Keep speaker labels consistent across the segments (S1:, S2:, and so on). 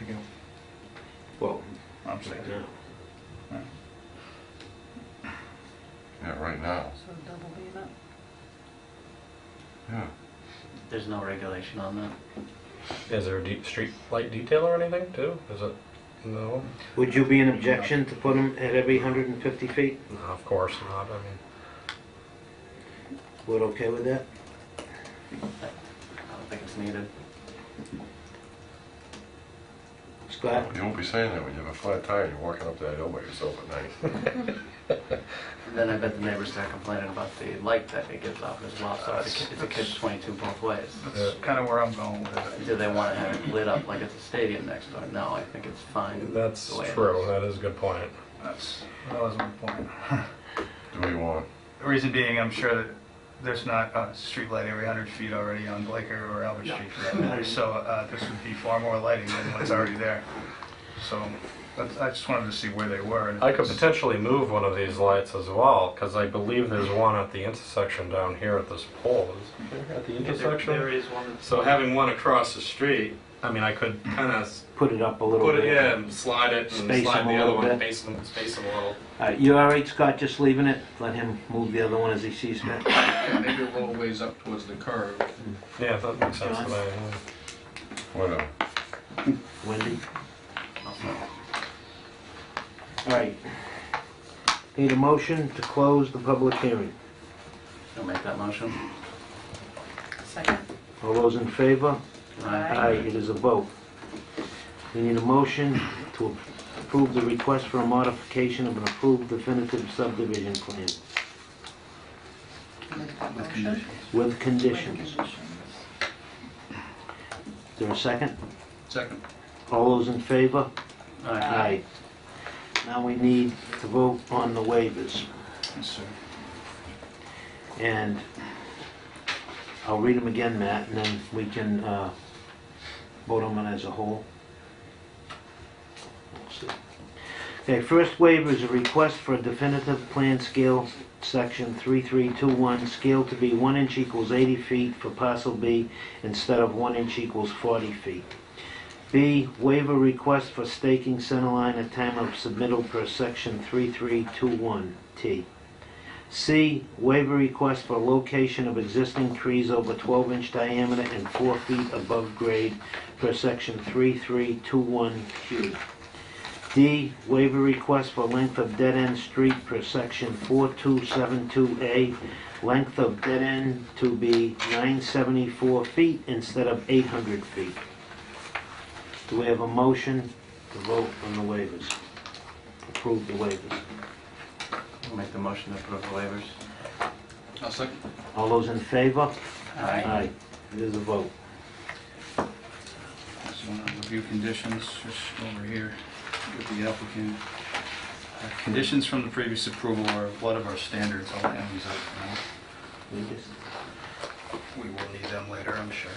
S1: ago.
S2: Well,
S3: I'm saying.
S2: yeah.
S4: Yeah, right now,
S5: So double the amount.
S4: yeah.
S6: There's no regulation on that.
S7: Is there a deep street light detail or anything too? Is it? No.
S2: Would you be an objection to put them at every 150 feet?
S7: No, of course not. I mean,
S2: We're okay with that?
S6: I don't think it's needed.
S2: Scott?
S4: You won't be saying that when you have a flat tire and you're walking up that hill by yourself at night.
S6: And then I bet the neighbors start complaining about the light that it gives off as well, so it's a kid- it's a kid's 22 both ways.
S3: That's kind of where I'm going with it.
S6: Do they want to have it lit up like it's a stadium next door? No, I think it's fine.
S7: that's
S6: the way it
S7: true.
S6: is.
S7: That is a good point.
S3: That's, that was my point.
S4: Do what you want.
S3: The reason being, I'm sure that there's not a street light every 100 feet already on Blaker or Albert Street for that matter, so uh, this would be far more lighting than what's already there. So that's- I just wanted to see where they were. and if
S7: I could
S3: it's-
S7: potentially move one of these lights as well because I believe there's one at the intersection down here at this pole. Is there at the intersection?
S8: There is one that's
S7: So having one across the street, I mean, I could kind of
S2: Put it up a little
S7: put it
S2: bit.
S7: in, slide it, and
S2: Space
S7: slide
S2: them
S7: the
S2: a
S7: other
S2: little
S7: one,
S2: bit.
S7: space them, space them a little.
S2: All right, you all right, Scott, just leaving it? Let him move the other one as he sees fit?
S8: maybe a little ways up towards the curve.
S7: Yeah, that makes sense to me. yeah.
S4: Whatever.
S2: Wendy? All right. Need a motion to close the public hearing.
S6: I'll make that motion.
S5: Second.
S2: All those in favor?
S5: Aye.
S2: Aye, it is a vote. We need a motion to approve the request for a modification of an approved definitive subdivision plan
S5: Make that
S8: With
S5: motion.
S8: conditions.
S2: with
S5: With
S2: conditions.
S5: conditions.
S2: Is there a second?
S8: Second.
S2: All those in favor?
S6: All right.
S2: Aye. Now we need to vote on the waivers,
S3: Yes, sir.
S2: and I'll read them again, Matt, and then we can uh, vote on them as a whole. Let's see. Okay, first waiver is a request for a definitive plan scale, section 3321, scale to be 1 inch equals 80 feet for parcel B instead of 1 inch equals 40 feet. B, waiver request for staking centerline at time of submittal per section 3321T. C, waiver request for location of existing trees over 12-inch diameter and 4 feet above grade per section 3321Q. D, waiver request for length of dead-end street per section 4272A, length of dead-end to be 974 feet instead of 800 feet. Do we have a motion to vote on the waivers? Approve the waivers.
S6: I'll make the motion to approve the waivers.
S8: I'll second.
S2: All those in favor?
S6: Aye.
S2: It is a vote.
S8: So uh, review conditions, just over here with the applicant. Uh, Conditions from the previous approval are a lot of our standards, I'll hand these out now.
S2: We just-
S8: We will need them later, I'm sure.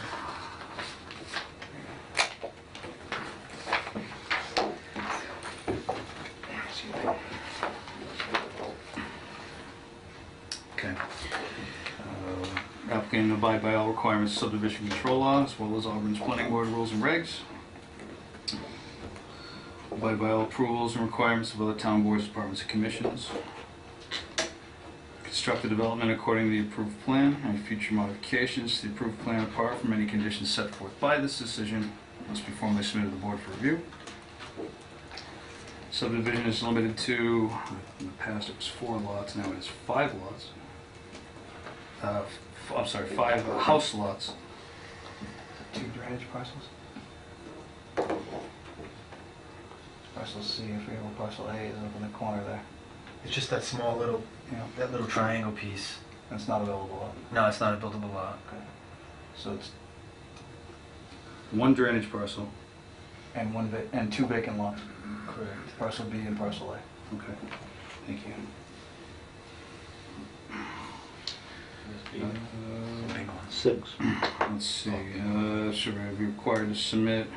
S8: Okay. Uh, Applicant abide by all requirements of subdivision control law, as well as Auburn's planning board rules and regs. Abide by all approvals and requirements of other town boards, departments, and commissions. Construct the development according to the approved plan, and future modifications to the approved plan apart from any conditions set forth by this decision must be formally submitted to the board for review. Subdivision is limited to, in the past it was four lots, now it is five lots. Uh, f- I'm sorry, five house lots.
S1: Two drainage parcels? Parcel C, I forget what parcel A is up in the corner there.
S9: It's just that small little,
S1: Yeah.
S9: that little triangle piece.
S1: That's not available lot.
S9: No, it's not a buildable lot.
S1: So it's,
S8: One drainage parcel.
S1: and one, va- and two vacant lots,
S8: Correct.
S1: parcel B and parcel A.
S8: Okay, thank you. Uh,
S2: Six.
S8: Let's see, uh, should I be required to submit?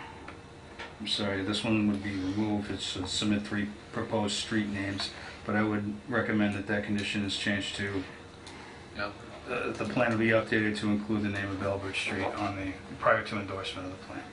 S8: I'm sorry, this one would be removed, it's uh, submit three proposed street names, but I would recommend that that condition is changed to,
S9: No.
S8: uh, the plan will be updated to include the name of Albert Street on the, prior to endorsement of the plan.